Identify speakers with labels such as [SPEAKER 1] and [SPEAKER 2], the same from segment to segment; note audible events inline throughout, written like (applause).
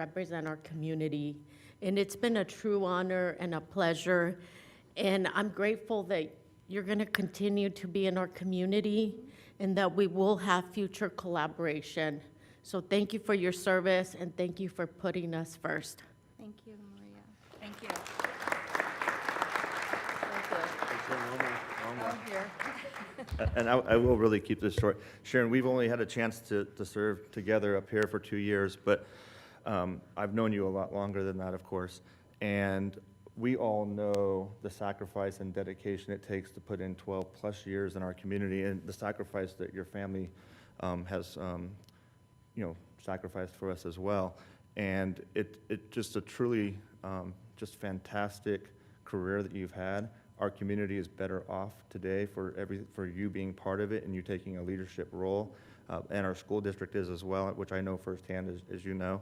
[SPEAKER 1] represent our community. And it's been a true honor and a pleasure. And I'm grateful that you're going to continue to be in our community and that we will have future collaboration. So thank you for your service and thank you for putting us first.
[SPEAKER 2] Thank you, Maria.
[SPEAKER 3] Thank you. Thank you. Down here.
[SPEAKER 4] And I, I will really keep this short. Sharon, we've only had a chance to, to serve together up here for two years, but um, I've known you a lot longer than that, of course. And we all know the sacrifice and dedication it takes to put in 12-plus years in our community and the sacrifice that your family um, has, um, you know, sacrificed for us as well. And it, it just a truly, um, just fantastic career that you've had. Our community is better off today for every, for you being part of it and you taking a leadership role. Uh, and our school district is as well, which I know firsthand, as, as you know.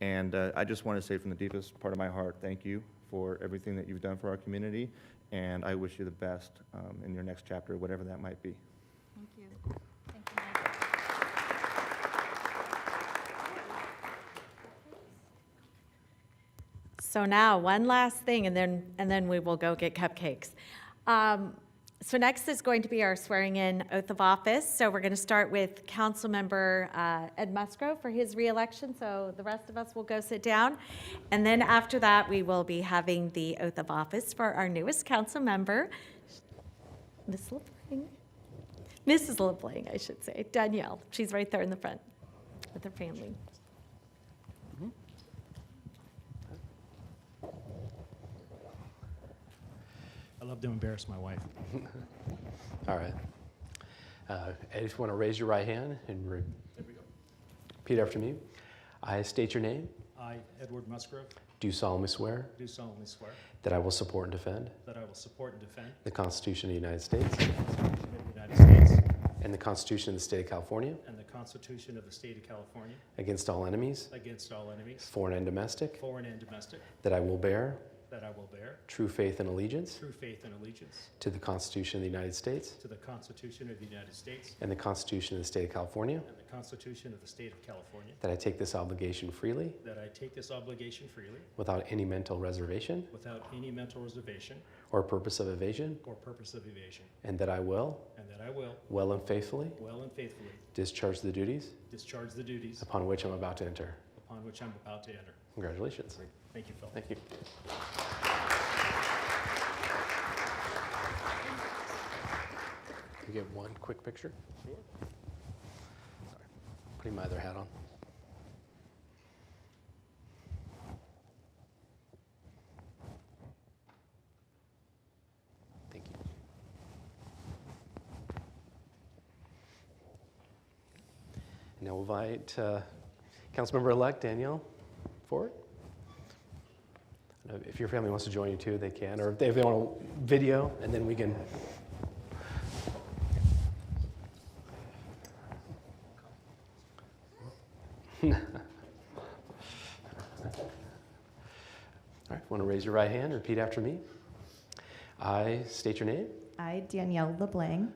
[SPEAKER 4] And, uh, I just want to say from the deepest part of my heart, thank you for everything that you've done for our community. And I wish you the best, um, in your next chapter, whatever that might be.
[SPEAKER 2] Thank you.
[SPEAKER 3] Thank you, Mike.
[SPEAKER 5] So now, one last thing, and then, and then we will go get cupcakes. Um, So next is going to be our swearing-in oath of office. So we're going to start with Councilmember uh, Ed Musgrove for his reelection, so the rest of us will go sit down. And then after that, we will be having the oath of office for our newest council member, Ms. LaPling. Mrs. LaPling, I should say, Danielle. She's right there in the front with her family.
[SPEAKER 6] I love to embarrass my wife.
[SPEAKER 7] All right. Uh, I just want to raise your right hand and re- repeat after me. I state your name,
[SPEAKER 6] I, Edward Musgrove,
[SPEAKER 7] do solemnly swear
[SPEAKER 6] do solemnly swear
[SPEAKER 7] that I will support and defend
[SPEAKER 6] that I will support and defend
[SPEAKER 7] the Constitution of the United States
[SPEAKER 6] the Constitution of the United States
[SPEAKER 7] and the Constitution of the State of California
[SPEAKER 6] and the Constitution of the State of California
[SPEAKER 7] against all enemies,
[SPEAKER 6] against all enemies,
[SPEAKER 7] foreign and domestic,
[SPEAKER 6] foreign and domestic,
[SPEAKER 7] that I will bear
[SPEAKER 6] that I will bear
[SPEAKER 7] true faith and allegiance
[SPEAKER 6] true faith and allegiance
[SPEAKER 7] to the Constitution of the United States
[SPEAKER 6] to the Constitution of the United States
[SPEAKER 7] and the Constitution of the State of California,
[SPEAKER 6] and the Constitution of the State of California,
[SPEAKER 7] that I take this obligation freely
[SPEAKER 6] that I take this obligation freely
[SPEAKER 7] without any mental reservation
[SPEAKER 6] without any mental reservation
[SPEAKER 7] or purpose of evasion,
[SPEAKER 6] or purpose of evasion,
[SPEAKER 7] and that I will,
[SPEAKER 6] and that I will,
[SPEAKER 7] well and faithfully,
[SPEAKER 6] well and faithfully,
[SPEAKER 7] discharge the duties
[SPEAKER 6] discharge the duties
[SPEAKER 7] upon which I'm about to enter.
[SPEAKER 6] upon which I'm about to enter.
[SPEAKER 7] Congratulations.
[SPEAKER 6] Thank you, Phil.
[SPEAKER 7] Thank you. Can you get one quick picture? Sure. Putting my other hat on. Thank you. And Now we'll invite uh, Councilmember-elect Danielle Ford. Uh, If your family wants to join you too, they can, or if they want to video, and then we can. (laughs) All right, want to raise your right hand, repeat after me. I state your name,
[SPEAKER 8] I, Danielle LeBlanc,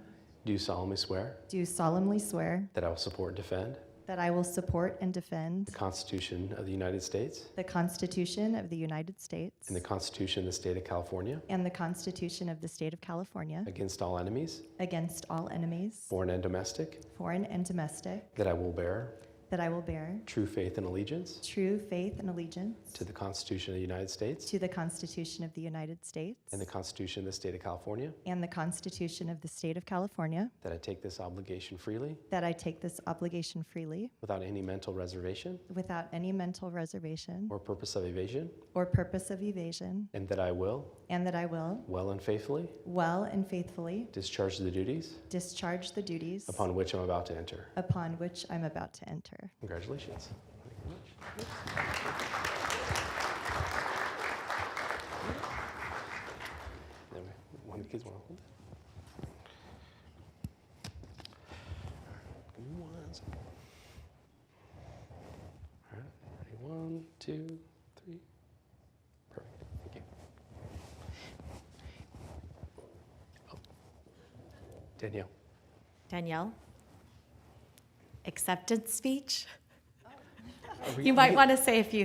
[SPEAKER 7] do solemnly swear
[SPEAKER 8] do solemnly swear
[SPEAKER 7] that I will support and defend
[SPEAKER 8] that I will support and defend
[SPEAKER 7] the Constitution of the United States
[SPEAKER 8] the Constitution of the United States
[SPEAKER 7] and the Constitution of the State of California
[SPEAKER 8] and the Constitution of the State of California
[SPEAKER 7] against all enemies,
[SPEAKER 8] against all enemies,
[SPEAKER 7] foreign and domestic,
[SPEAKER 8] foreign and domestic,
[SPEAKER 7] that I will bear
[SPEAKER 8] that I will bear
[SPEAKER 7] true faith and allegiance
[SPEAKER 8] true faith and allegiance
[SPEAKER 7] To the Constitution of the United States.
[SPEAKER 8] to the Constitution of the United States
[SPEAKER 7] And the Constitution of the State of California.
[SPEAKER 8] and the Constitution of the State of California,
[SPEAKER 7] That I take this obligation freely,
[SPEAKER 8] that I take this obligation freely
[SPEAKER 7] without any mental reservation
[SPEAKER 8] without any mental reservation
[SPEAKER 7] or purpose of evasion.
[SPEAKER 8] or purpose of evasion,
[SPEAKER 7] And that I will,
[SPEAKER 8] and that I will
[SPEAKER 7] well and faithfully,
[SPEAKER 8] well and faithfully
[SPEAKER 7] discharge the duties
[SPEAKER 8] discharge the duties
[SPEAKER 7] upon which I'm about to enter.
[SPEAKER 8] upon which I'm about to enter.
[SPEAKER 7] Congratulations. Thank you very much. Then we- One of the kids want to hold it. Give me one second. All right, ready? One, two, three. Perfect. Thank you. Oh. Danielle.
[SPEAKER 5] Danielle? Acceptance speech?
[SPEAKER 7] are we-
[SPEAKER 5] You might want to say a few